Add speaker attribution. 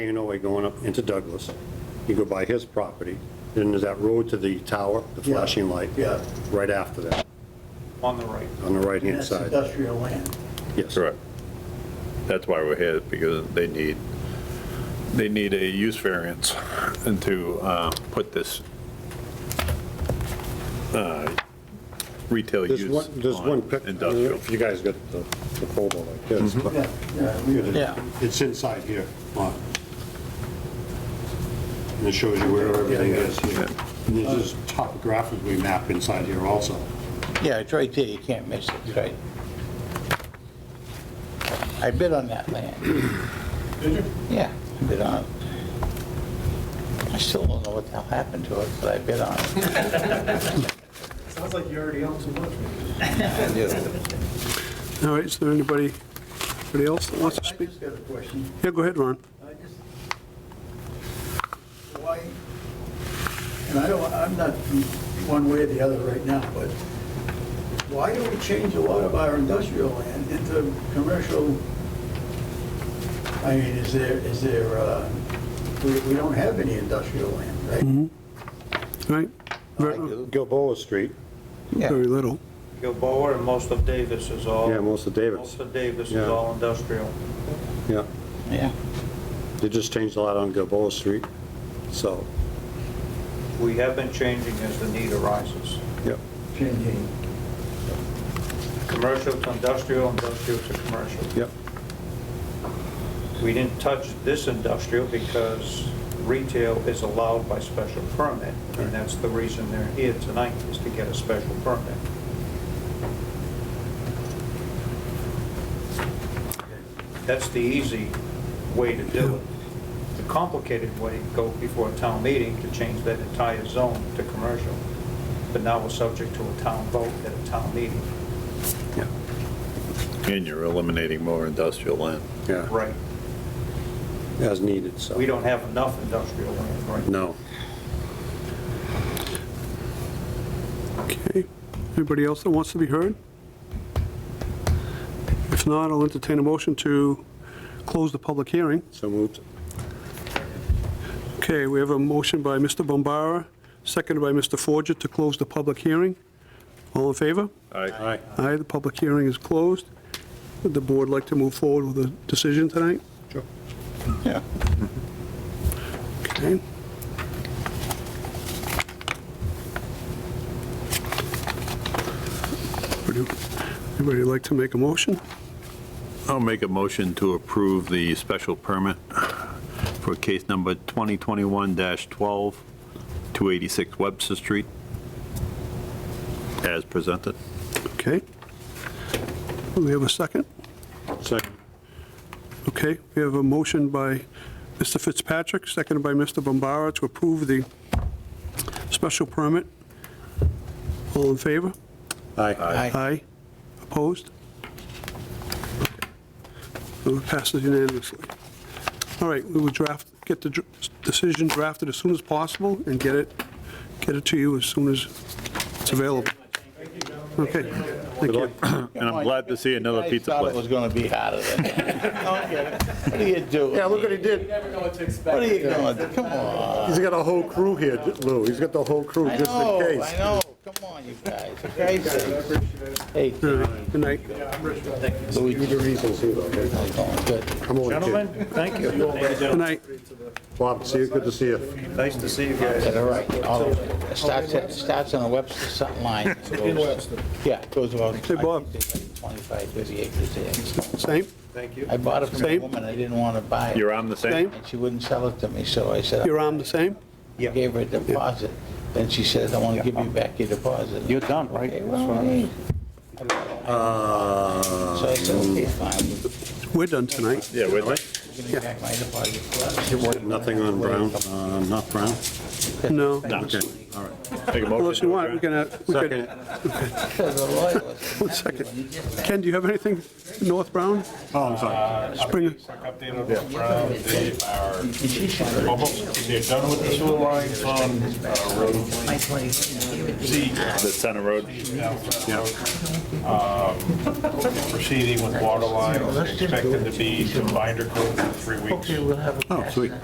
Speaker 1: Way going up into Douglas, you go by his property, then there's that road to the tower, the
Speaker 2: Yeah.
Speaker 1: flashing light.
Speaker 2: Yeah.
Speaker 1: Right after that,
Speaker 3: on the right.
Speaker 1: on the right-hand
Speaker 2: That's
Speaker 1: side.
Speaker 2: industrial land.
Speaker 1: Yes.
Speaker 4: Correct. That's why we're here, because they need, they need a use variance and to uh, put this uh, retail
Speaker 1: There's
Speaker 4: use
Speaker 1: one, there's one
Speaker 4: on
Speaker 1: pic, I don't know
Speaker 4: industrial. Mm-hmm.
Speaker 1: if you guys got the the folder like this, but
Speaker 2: Yeah, yeah, we-
Speaker 5: Yeah.
Speaker 1: it's inside here. Mark. And it shows you where everything is here. And this is topographically mapped inside here also.
Speaker 5: Yeah, it's right there, you can't miss it, it's right. I bid on that land,
Speaker 3: Did you?
Speaker 5: yeah, I bid on it. I still don't know what the hell happened to it, but I bid on it.
Speaker 3: Sounds like you already own too much.
Speaker 6: All right, is there anybody, anybody else that wants to
Speaker 2: I
Speaker 6: speak?
Speaker 2: just got a question.
Speaker 6: Yeah, go ahead, Ron.
Speaker 2: I just, why, and I don't, I'm not one way or the other right now, but why do we change a lot of our industrial land into commercial? I mean, is there, is there, uh, we, we don't have any industrial land, right?
Speaker 6: All right, very
Speaker 1: Gilboa Street,
Speaker 5: Yeah,
Speaker 6: very little.
Speaker 3: Gilboa and most of Davis is all.
Speaker 1: Yeah, most of Davis.
Speaker 3: Most of Davis is
Speaker 1: Yeah.
Speaker 3: all industrial.
Speaker 1: yeah.
Speaker 5: yeah,
Speaker 1: They just changed a lot on Gilboa Street, so,
Speaker 3: We have been changing as the need arises.
Speaker 1: yeah.
Speaker 2: Changing.
Speaker 3: Commercial to industrial, industrial to commercial.
Speaker 1: Yep.
Speaker 3: We didn't touch this industrial because retail is allowed by special permit, and that's the reason they're here tonight, is to get a special permit. That's the easy way to do it. The complicated way, go before a town meeting to change that entire zone to commercial, but now we're subject to a town vote at a town meeting.
Speaker 4: And you're eliminating more industrial land.
Speaker 1: Yeah,
Speaker 3: Right.
Speaker 1: as needed, so.
Speaker 3: We don't have enough industrial land right now.
Speaker 1: No.
Speaker 6: Okay. Anybody else that wants to be heard? If not, I'll entertain a motion to close the public hearing.
Speaker 1: So moved.
Speaker 6: Okay, we have a motion by Mr. Bombara, seconded by Mr. Forget to close the public hearing. All in favor?
Speaker 4: Aye.
Speaker 1: Aye.
Speaker 6: Aye, the public hearing is closed. Would the board like to move forward with a decision tonight?
Speaker 5: yeah.
Speaker 6: Okay. Would you- Anybody like to make a motion?
Speaker 4: I'll make a motion to approve the special permit for case number 2021-12, 286 Webster Street, as presented.
Speaker 6: Okay. Do we have a second?
Speaker 1: Second.
Speaker 6: Okay, we have a motion by Mr. Fitzpatrick, seconded by Mr. Bombara to approve the special permit. All in favor?
Speaker 1: Aye.
Speaker 5: Aye.
Speaker 6: Aye. Opposed? So It passes unanimously. All right, we will draft, get the dr- decision drafted as soon as possible and get it, get it to you as soon as it's available. Okay, thank you.
Speaker 4: And I'm glad to see another pizza
Speaker 5: I thought it
Speaker 4: place.
Speaker 5: was gonna be harder than that. Don't get it. What are you doing? Yeah, look at it.
Speaker 7: You never know what to expect.
Speaker 5: What are you going, to- come on.
Speaker 1: He's got a whole crew here, Lou. He's got the whole crew
Speaker 5: I know, I know, come on, you guys, for Christ's sake. Hey,
Speaker 6: All right, Good night.
Speaker 1: You
Speaker 5: Luigi,
Speaker 1: the reasons here, okay?
Speaker 5: it's going good.
Speaker 1: I'm only
Speaker 3: Gentlemen,
Speaker 1: kidding.
Speaker 3: thank you.
Speaker 6: Good night.
Speaker 1: Bob, see you, good to see you.
Speaker 3: Nice to see you guys.
Speaker 5: All right, all of it. It starts, at- starts on the Webster Sutton line. and goes- Yeah, goes about.
Speaker 6: Hey, Bob.
Speaker 5: I think it's like 25, 30 acres there.
Speaker 6: Same?
Speaker 3: Thank you.
Speaker 5: I bought it from a
Speaker 6: Same.
Speaker 5: woman, I didn't want to buy
Speaker 4: Your
Speaker 5: it,
Speaker 4: arm the same?
Speaker 6: Same?
Speaker 5: and she wouldn't sell it to me, so I said,
Speaker 6: Your arm the same?
Speaker 5: I gave her a deposit. Then she said, I want to give you back your deposit.
Speaker 3: You're done, right?
Speaker 5: Okay, well, hey.
Speaker 1: Uh,
Speaker 5: So I said, okay, fine,
Speaker 6: We're done tonight.
Speaker 4: Yeah, with it.
Speaker 5: give me back my deposit.
Speaker 1: Nothing on Brown, uh, not Brown?
Speaker 6: No.
Speaker 4: Okay, all right. Make a motion
Speaker 6: Unless
Speaker 4: to
Speaker 6: you want, we
Speaker 4: adjourn.
Speaker 6: can, uh, we can,
Speaker 5: Because the lawyer was
Speaker 6: one second. Ken, do you have anything, North Brown?
Speaker 1: Oh, I'm sorry.
Speaker 6: Spring,
Speaker 3: Quick update on the ground, they are almost, they're done with the sewer lines on uh, Road Z.
Speaker 4: The center road.
Speaker 3: Proceeding with water lines, expected to be some binder coat in three weeks.
Speaker 5: Okay, we'll have a.
Speaker 1: Oh, sweet.